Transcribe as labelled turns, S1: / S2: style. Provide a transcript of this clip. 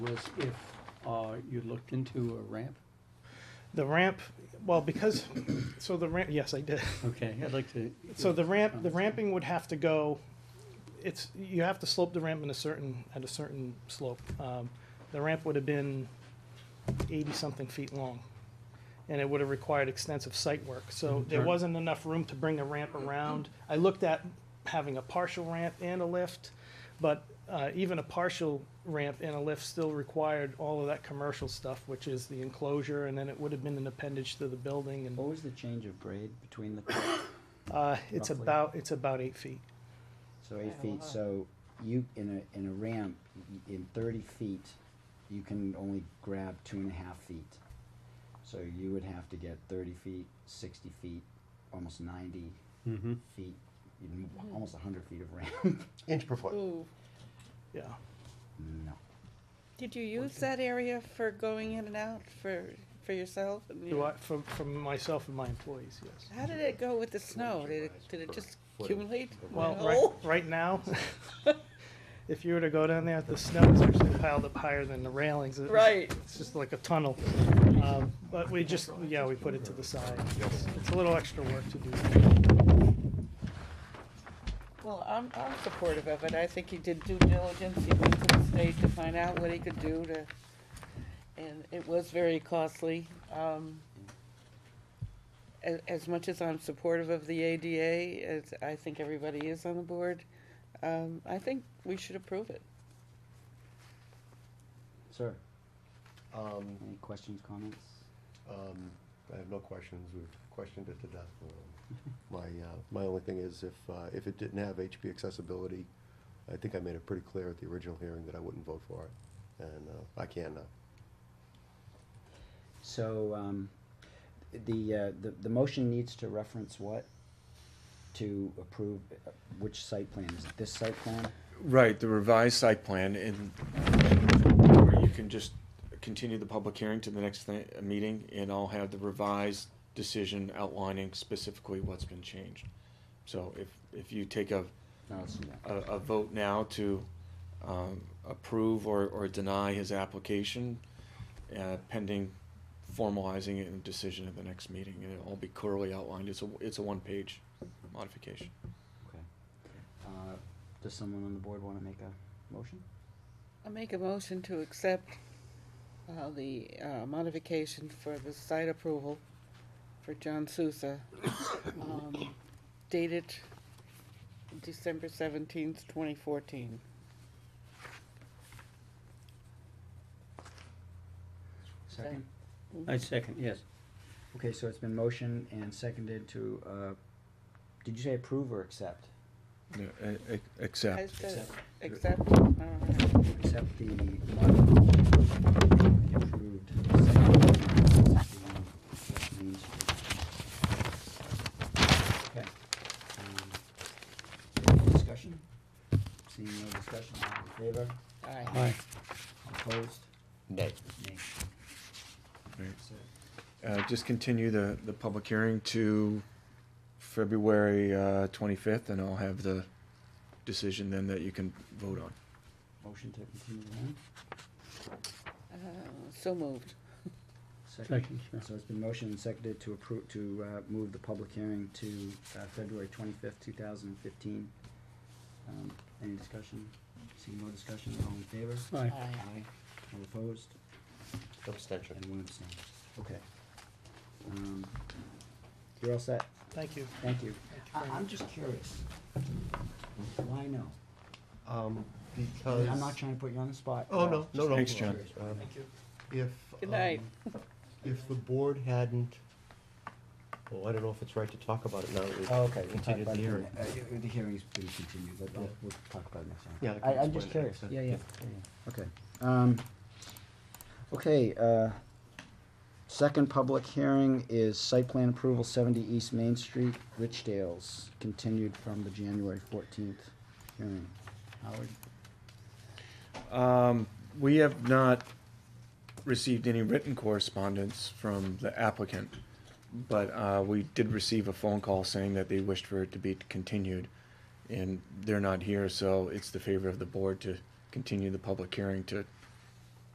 S1: was if uh, you looked into a ramp.
S2: The ramp, well, because, so the ramp, yes, I did.
S1: Okay, I'd like to.
S2: So the ramp, the ramping would have to go, it's, you have to slope the ramp in a certain, at a certain slope. Um, The ramp would have been eighty-something feet long, and it would have required extensive site work. So there
S1: Sure.
S2: wasn't enough room to bring a ramp around. I looked at having a partial ramp and a lift, but uh, even a partial ramp and a lift still required all of that commercial stuff, which is the enclosure, and then it would have been an appendage to the building and.
S3: What was the change of grade between the,
S2: Uh, it's
S3: Roughly.
S2: about, it's about eight feet.
S3: so eight feet, so you, in a, in a ramp, y- in thirty feet, you can only grab two and a half feet. So you would have to get thirty feet, sixty feet, almost ninety
S4: Hmm.
S1: Mm-hmm.
S3: feet, even w- almost a hundred feet of ramp.
S4: Inch per foot.
S5: Ooh.
S2: Yeah.
S3: No,
S5: Did you use that area for going in and out for, for yourself? and
S2: Do
S5: your-
S2: I, for, for myself and my employees, yes.
S5: How did it go with the snow? Did it, did it just accumulate?
S2: Well,
S5: No?
S2: right, right now, if you were to go down there, the snow is actually piled up higher than the railings. It-
S5: Right.
S2: It's just like a tunnel. Um, but we just, yeah, we put it to the side. It's- It's a little extra work to do.
S5: Well, I'm, I'm supportive of it. I think he did due diligence. He went to the state to find out what he could do to, and it was very costly. Um, as, as much as I'm supportive of the ADA, as I think everybody is on the board, um, I think we should approve it.
S3: sir,
S4: Um,
S3: any questions, comments?
S4: um, I have no questions, we've questioned it to death. Um, My, uh, my only thing is if, uh, if it didn't have HP accessibility, I think I made it pretty clear at the original hearing that I wouldn't vote for it, and, uh, I can now.
S3: So, um, the, uh, the, the motion needs to reference what? To approve, uh, which site plan, is it this site plan?
S6: Right, the revised site plan, and or you can just continue the public hearing to the next thi- uh, meeting, and I'll have the revised decision outlining specifically what's been changed. So if, if you take a,
S3: No, let's do that.
S6: a, a vote now to, um, approve or, or deny his application, uh, pending formalizing it and decision at the next meeting, and it'll all be clearly outlined, it's a, it's a one-page modification.
S3: Okay. Uh, Does someone on the board want to make a motion?
S5: I make a motion to accept uh, the uh, modification for the site approval for John Sousa, um, dated December seventeenth, twenty fourteen.
S3: Second?
S1: I second, yes.
S3: Okay, so it's been motioned and seconded to, uh, did you say approve or accept?
S6: Accept.
S3: Accept.
S5: Accept, all right.
S3: Accept the modified, approved site plan. Main Street. Okay. Um, any Discussion? Seeing no discussion, all in favor?
S5: Aye.
S1: Aye.
S3: Opposed?
S4: Nay.
S3: Nay.
S6: Right.
S3: So,
S6: Uh, just continue the, the public hearing to February, uh, twenty-fifth, and I'll have the decision then that you can vote on.
S3: Motion to continue the hearing?
S5: Uh, So moved.
S1: Second, sure.
S3: So it's been motioned and seconded to approve, to uh, move the public hearing to uh, February twenty-fifth, two thousand and fifteen. Um, Any discussion? Seeing no discussion, all in favor?
S1: Aye.
S3: Aye. All opposed?
S4: Abstention.
S3: And one abstention. Okay. Um, You're all set.
S2: Thank you.
S3: Thank you.
S2: Thank you
S3: I-
S5: Uh-huh.
S2: very
S3: I'm just curious. Why no?
S4: Um,
S3: I
S4: because.
S3: mean, I'm not trying to put you on the spot.
S4: Oh, no, no, no.
S6: Thanks, John.
S4: Um, If.
S5: Good night.
S4: um, If the board hadn't, well, I don't know if it's right to talk about it now. that we've
S3: Oh, Okay, we'll talk
S4: continued
S3: about
S4: the
S3: it.
S4: hearing.
S3: Uh, y- The hearing's been continued, but I'll-
S4: Yeah.
S3: we'll talk about it next time.
S4: Yeah, I can
S3: I, I'm
S4: explain
S3: just
S4: it
S3: curious,
S4: next time.
S3: yeah, yeah,
S4: Yeah.
S3: yeah, yeah. okay. Um, okay, uh, second public hearing is site plan approval, seventy East Main Street, Richdale's, continued from the January fourteenth hearing. Howard?
S6: Um, we have not received any written correspondence from the applicant, but, uh, we did receive a phone call saying that they wished for it to be continued, and they're not here, so it's the favor of the board to continue the public hearing to